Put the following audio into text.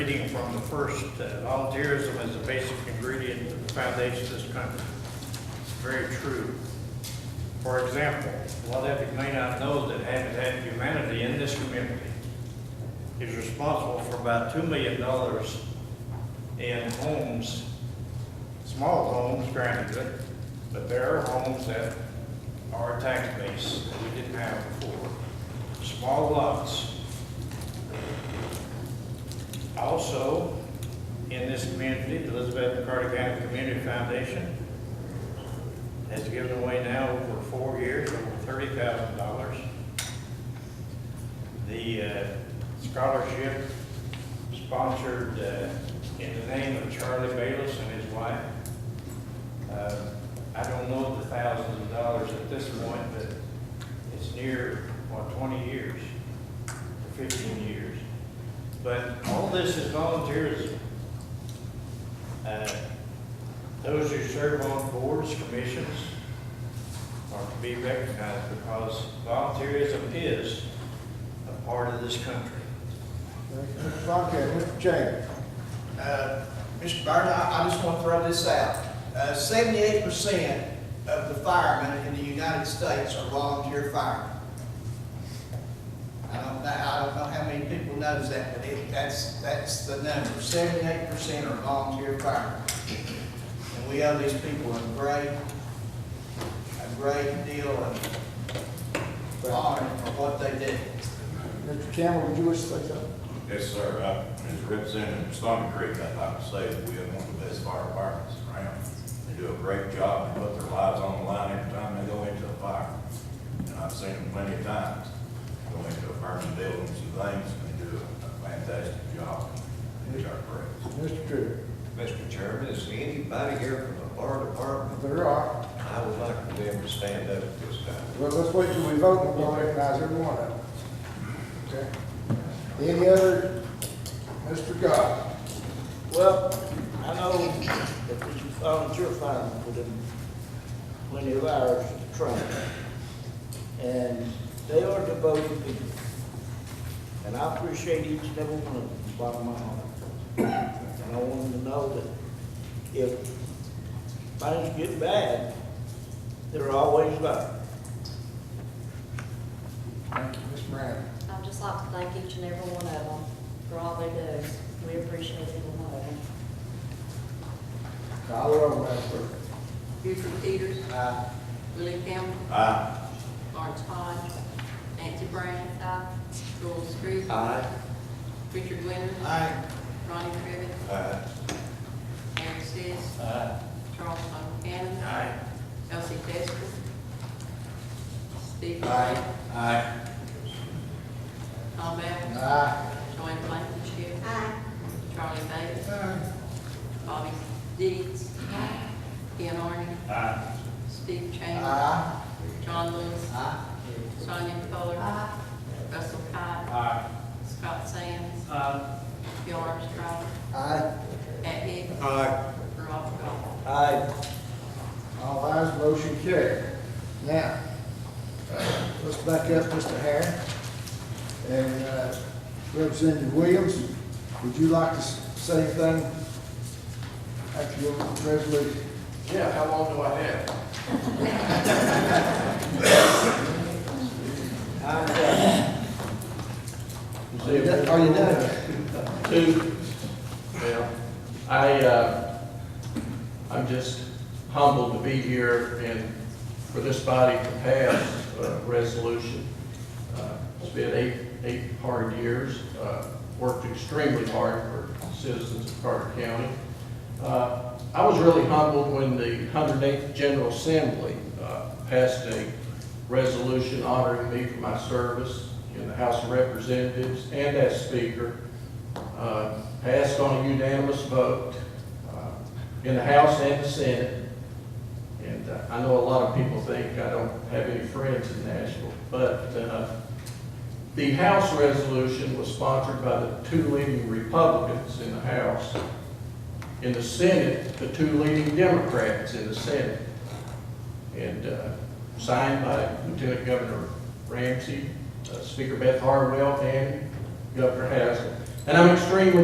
reading from the first, uh, volunteerism is a basic ingredient of the foundation of this country. It's very true. For example, a lot of you may not know that Habitat for Humanity in this community is responsible for about $2 million in homes, small homes, granted, but there are homes that are tax base that we didn't have before. Small lots. Also, in this community, the Elizabeth McCarty County Community Foundation has given away now over four years, over thirty thousand dollars. The uh, scholarship sponsored uh, in the name of Charlie Bayless and his wife. Uh, I don't know the thousands of dollars at this point, but it's near, what, twenty years, or fifteen years. But all this is volunteerism. Uh, those who serve on boards, commissions are to be recognized because volunteerism is a part of this country. Mr. Fontaine, Mr. James. Uh, Mr. Byrne, I I just want to throw this out. Uh, Seventy-eight percent of the firemen in the United States are volunteer firemen. I don't know, I don't know how many people knows that, but it, that's, that's the number. Seventy-eight percent are volunteer firemen. And we owe these people a great, a great deal of honor for what they did. Mr. Campbell, would you wish to say something? Yes, sir. I- As Representative Stone Creek, I'd like to say that we have one of the best fire departments around. They do a great job. They put their lives on the line every time they go into a fire. And I've seen them plenty of times go into a burning buildings and things, and they do a fantastic job. They are great. Mr. Drew. Mr. Chairman, is anybody here from the fire department? There are. I would like for them to stand up at this time. Well, let's wait till we vote and we'll recognize every one of them. Okay. Any other? Mr. God. Well, I know that the volunteer firemen put in plenty of hours of training, and they are devoted people. And I appreciate each and every one of them, from the bottom of my heart. And I want them to know that if things get bad, they're always there. Thank you, Ms. Brandon. I'd just like to thank each and every one of them for all they do. We appreciate every one of them. Call the roll, Madam Clerk. Buford Peters. Willie Campbell. Aye. Lawrence Hodge. Nancy Brown. Joel Street. Aye. Richard Winters. Aye. Ronnie Crivitt. Aye. Mary Sis. Aye. Charles Von Cannon. Aye. Elsie Testor. Steve Ray. Aye. Tom Allen. Aye. Joanne Blankenship. Aye. Charlie Bates. Bobby Dees. Ian Arden. Aye. Steve Chambers. Aye. John Lewis. Aye. Sonia Coler. Russell Cott. Aye. Scott Sands. Aye. Bill Armstrong. Aye. Pat Hicks. Aye. Rob Goff. Aye. All ayes, motion carried. Now, let's back up Mr. Harris. And uh, Representative Williams, would you like to s- say anything after your resolution? Yeah, how long do I have? I'm done. Are you done? Are you done? Two, well, I, uh, I'm just humbled to be here and for this body to pass a resolution. Uh, It's been eight, eight hard years, uh, worked extremely hard for citizens of Carter County. Uh, I was really humbled when the 108th General Assembly uh, passed a resolution honoring me for my service in the House of Representatives and as Speaker uh, passed on a unanimous vote uh, in the House and the Senate. And uh, I know a lot of people think I don't have any friends in Nashville, but uh, the House resolution was sponsored by the two leading Republicans in the House. In the Senate, the two leading Democrats in the Senate. And uh, signed by Lieutenant Governor Ramsey, uh, Speaker Beth Harwell, and Governor Haslam. And I'm extremely